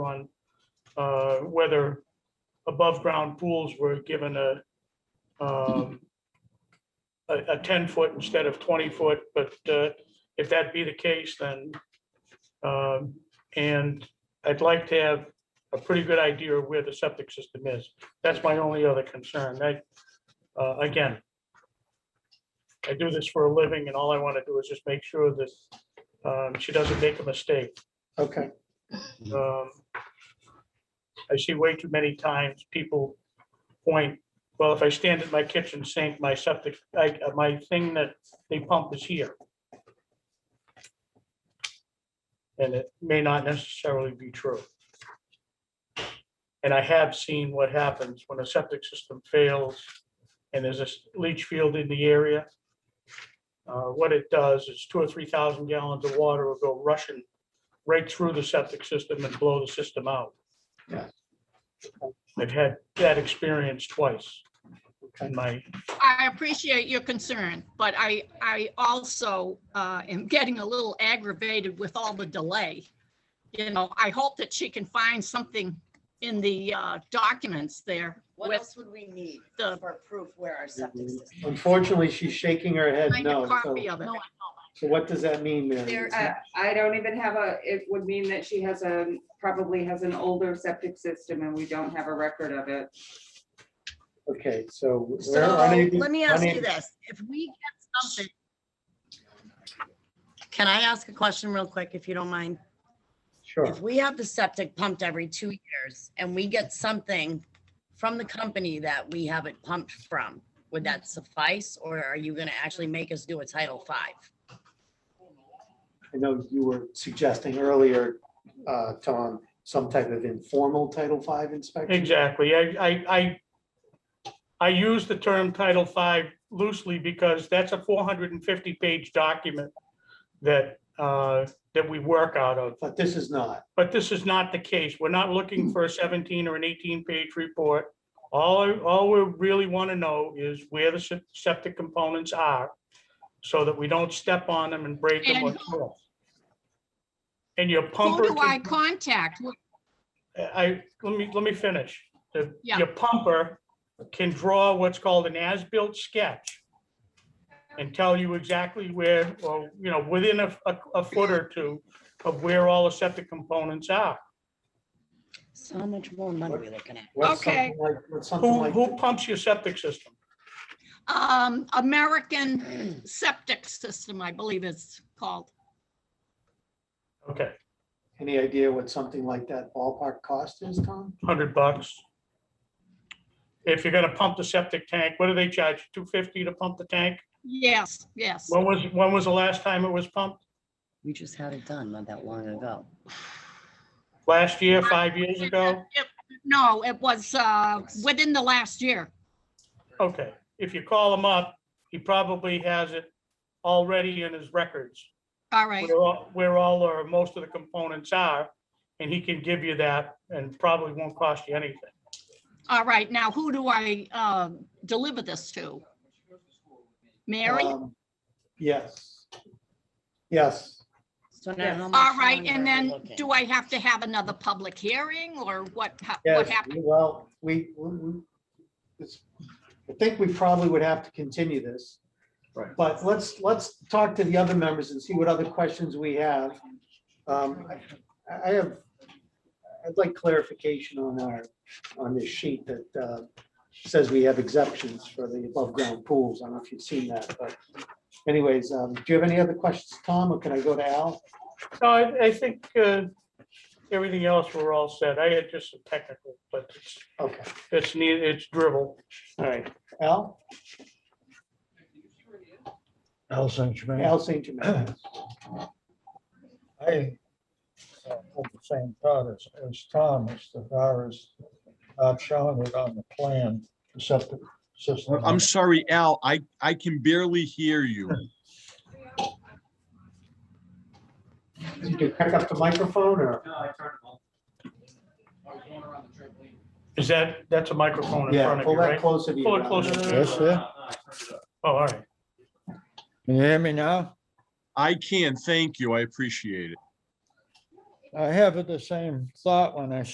uh, whether above-ground pools were given a, um, a, a 10-foot instead of 20-foot, but uh, if that be the case, then, um, and I'd like to have a pretty good idea of where the septic system is. That's my only other concern. I, uh, again, I do this for a living and all I want to do is just make sure that um, she doesn't make a mistake. Okay, Um, I see way too many times people point, well, if I stand at my kitchen sink, my septic, I- uh, my thing that they pump is here. And it may not necessarily be true. And I have seen what happens when a septic system fails and there's a s- leach field in the area. Uh, What it does is two or three thousand gallons of water will go rushing right through the septic system and blow the system out. Yeah. I've had that experience twice okay, in my, I appreciate your concern, but I, I also uh, am getting a little aggravated with all the delay. You know, I hope that she can find something in the uh, documents there What with else would we need the for proof where our septic system? unfortunately, she's shaking her head kind no. of So, copy of it. so what does that mean, Mary? There, It's I, uh, not- I don't even have a, it would mean that she has a, probably has an older septic system and we don't have a record of it. Okay, so. we're So unable- let me ask you unable- this, if we get something. Can I ask a question real quick, if you don't mind? Sure, If we have the septic pumped every two years and we get something from the company that we have it pumped from, would that suffice? Or are you gonna actually make us do a Title Five? I know you were suggesting earlier, uh, Tom, some type of informal Title V inspection. exactly, I, I, I, I use the term Title V loosely because that's a four hundred and fifty page document that, uh, that we work out of. But this is not. But this is not the case. We're not looking for a 17 or an 18-page report. All, all we really want to know is where the se- septic components are so that we don't step on them and break them. or And kill 'em. And your Who pumper, do I can- contact? I, let me, let me finish. The- Yeah. Your pumper can draw what's called an as-built sketch and tell you exactly where, or, you know, within a, a- a foot or two of where all the septic components are. So much more money we looking at? What's Okay. something like- What's something Who, like, who pumps your septic system? Um, American Septic System, I believe it's called. Okay, any idea what something like that ballpark cost is, Tom? hundred bucks. If you're gonna pump the septic tank, what do they charge? Two fifty to pump the tank? Yes, yes. When was, when was the last time it was pumped? We just had it done not that long ago. Last year, five years ago? No, it was uh, within the last year. Okay, if you call him up, he probably has it already in his records. All right. Where all, where all or most of the components are, and he can give you that and probably won't cost you anything. All right, now who do I um, deliver this to? Mary? All Um, Yes. Yes, So now how much right, longer and are we then looking? do I have to have another public hearing or what, ha- what yes, happened? well, we, we, we- it's- I think we probably would have to continue this. Right. But let's, let's talk to the other members and see what other questions we have. Um, I I have, I'd like clarification on our, on this sheet that uh, says we have exemptions for the above-ground pools. I don't know if you've seen that, but anyways, um, do you have any other questions, Tom, or can I go to Al? No, I, I think, uh, everything else, we're all set. I had just some technical, but it's, Okay, it's neat, it's dribble. all right. Al? Al St. Germain. Al St. Germain. I uh, had the same thought as, as Tom, as the far as not showing it on the plan, the septic system. I'm sorry, Al, I, I can barely hear you. Did you pick up the microphone or? Is that, that's a microphone in front of Pull you, that right? closer to you. Pull it Al. closer to Yes, sir. Oh, all right. Can you hear me now? I can, thank you, I appreciate it. I have the same thought when I